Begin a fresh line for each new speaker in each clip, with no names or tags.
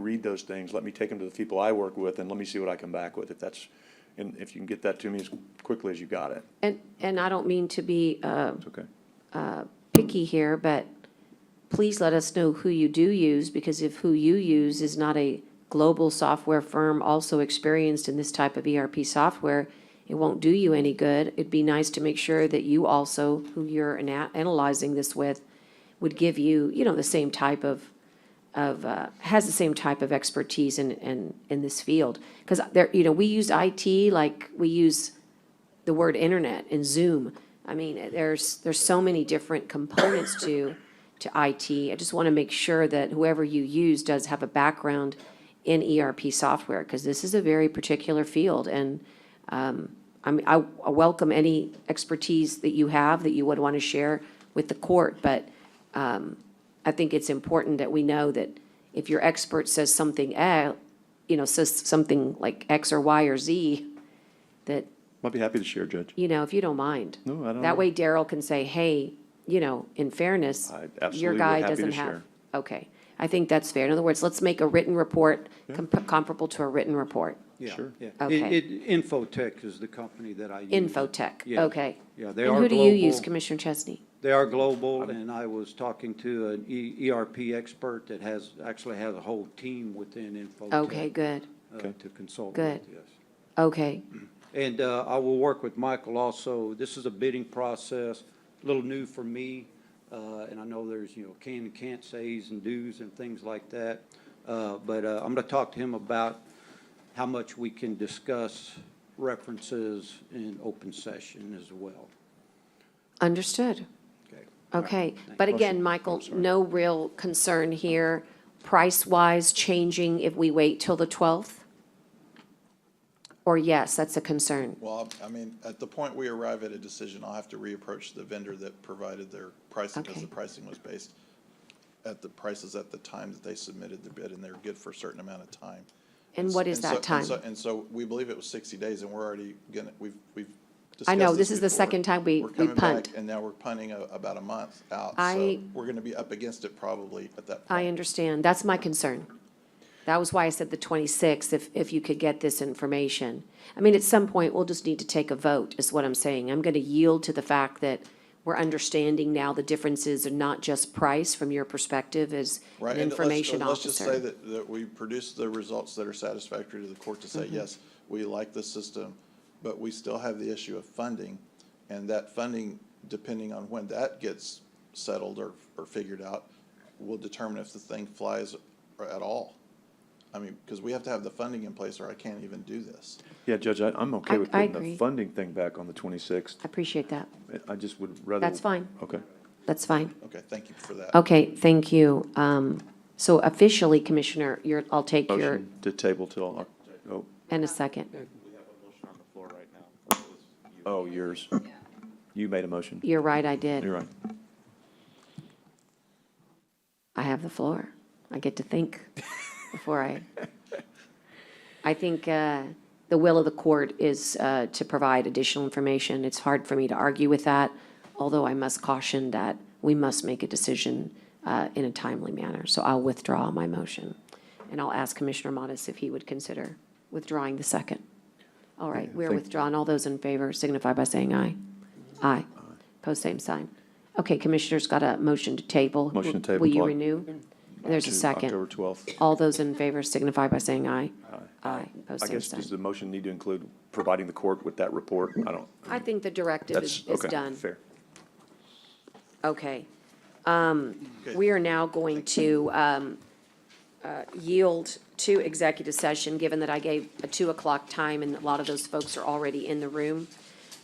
read those things, let me take them to the people I work with, and let me see what I come back with, if that's, and if you can get that to me as quickly as you got it,
And, and I don't mean to be uh,
it's okay.
picky here, but please let us know who you do use, because if who you use is not a global software firm also experienced in this type of ERP software, it won't do you any good. It'd be nice to make sure that you also, who you're ana- analyzing this with, would give you, you know, the same type of, of, uh, has the same type of expertise in, in, in this field. Because there, you know, we use IT like we use the word internet and Zoom. I mean, there's, there's so many different components to, to IT. I just want to make sure that whoever you use does have a background in ERP software, because this is a very particular field. And um, I mean, I I welcome any expertise that you have that you would want to share with the court, but um, I think it's important that we know that if your expert says something, eh, you know, says something like X or Y or Z, that
I'd be happy to share, Judge.
you know, if you don't mind.
No, I don't
That
know.
way Daryl can say, hey, you know, in fairness,
I
your
absolutely
guy
happy to
doesn't
share.
have. Okay, I think that's fair. In other words, let's make a written report com- comparable to a written report.
Yeah,
Sure.
yeah.
Okay.
It, it, Infotech is the company that I use.
Infotech,
Yeah.
okay.
Yeah, they
And
are
who do you use,
global.
Commissioner Chesney?
They are global, and I was talking to an E- ERP expert that has, actually has a whole team within Infotech.
Okay, good,
uh,
Okay.
To consult
Good.
with, yes.
okay,
And uh, I will work with Michael also. This is a bidding process, a little new for me, uh, and I know there's, you know, can and can't says and do's and things like that. Uh, But uh, I'm going to talk to him about how much we can discuss references in open session as well.
understood.
Okay.
Okay, but
Oh,
again, Michael, no real concern here, price-wise changing if we wait till the 12th? Or yes, that's a concern,
Well, I mean, at the point we arrive at a decision, I'll have to reapproach the vendor that provided their pricing, because the
Okay.
pricing was based at the prices at the time that they submitted the bid, and they're good for a certain amount of time.
and what is
so-
that
and
time?
so- And so, we believe it was sixty days, and we're already gonna, we've, we've
I know,
discussed
this is the
before.
second time we-
We're
we
coming back,
punt.
And now we're punting a- about a month out, so
I-
we're gonna be up against it probably at that
I
point.
understand. That's my concern. That was why I said the 26th, if, if you could get this information. I mean, at some point, we'll just need to take a vote, is what I'm saying. I'm going to yield to the fact that we're understanding now the differences are not just price from your perspective as
Right,
an
and let's-
information
and Let's just say
officer.
that, that we produce the results that are satisfactory to the court to
Mm-hmm.
say, yes, we like the system, but we still have the issue of funding. And that funding, depending on when that gets settled or, or figured out, will determine if the thing flies at all. I mean, because we have to have the funding in place or I can't even do this.
Yeah, Judge, I, I'm okay
I-
with
I
putting the
agree.
funding thing back on the twenty-sixth.
I appreciate that.
I just would rather.
That's fine.
Okay.
That's fine.
Okay, thank you for that.
Okay, thank you. Um, So officially, Commissioner, you're, I'll take your,
Motion to table till, Oc- oh,
and a second.
oh, yours. You made a motion.
You're right, I did.
You're right.
I have the floor. I get to think before I. I think uh, the will of the court is uh, to provide additional information. It's hard for me to argue with that, although I must caution that we must make a decision uh, in a timely manner. So I'll withdraw my motion. And I'll ask Commissioner Modis if he would consider withdrawing the second. All right, we're
Thank-
withdrawn. All those in favor signify by saying aye. Aye. Post same sign. Okay, Commissioner's got a motion to table.
Motion to table,
Will you
Clark.
renew? And There's a
To
second.
October twelfth.
All those in favor signify by saying aye. Aye. Post
I
same
guess, does the
sign.
motion need to include providing the court with that report? I don't,
I think the directive
that's,
is, is
okay,
done.
fair.
Okay. Um, We are now going to um, uh, yield to executive session, given that I gave a 2 o'clock time and a lot of those folks are already in the room.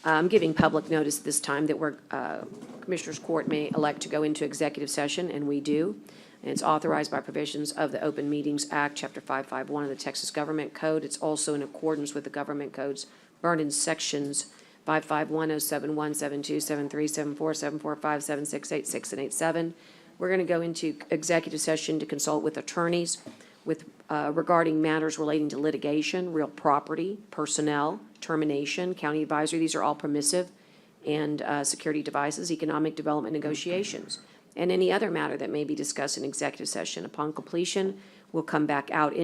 I'm giving public notice this time that we're, uh, Commissioners Court may elect to go into executive session, and we do. And it's authorized by provisions of the Open Meetings Act, Chapter 551 of the Texas Government Code. It's also in accordance with the Government Code's burn-in sections 551, 071, 72, 73, 74, 745, 768, 6, and 87. We're going to go into executive session to consult with attorneys with, uh, regarding matters relating to litigation, real property, personnel, termination, county advisory, these are all permissive, and uh, security devices, economic development negotiations. and any other matter that may be discussed in executive session. Upon completion, we'll come back out in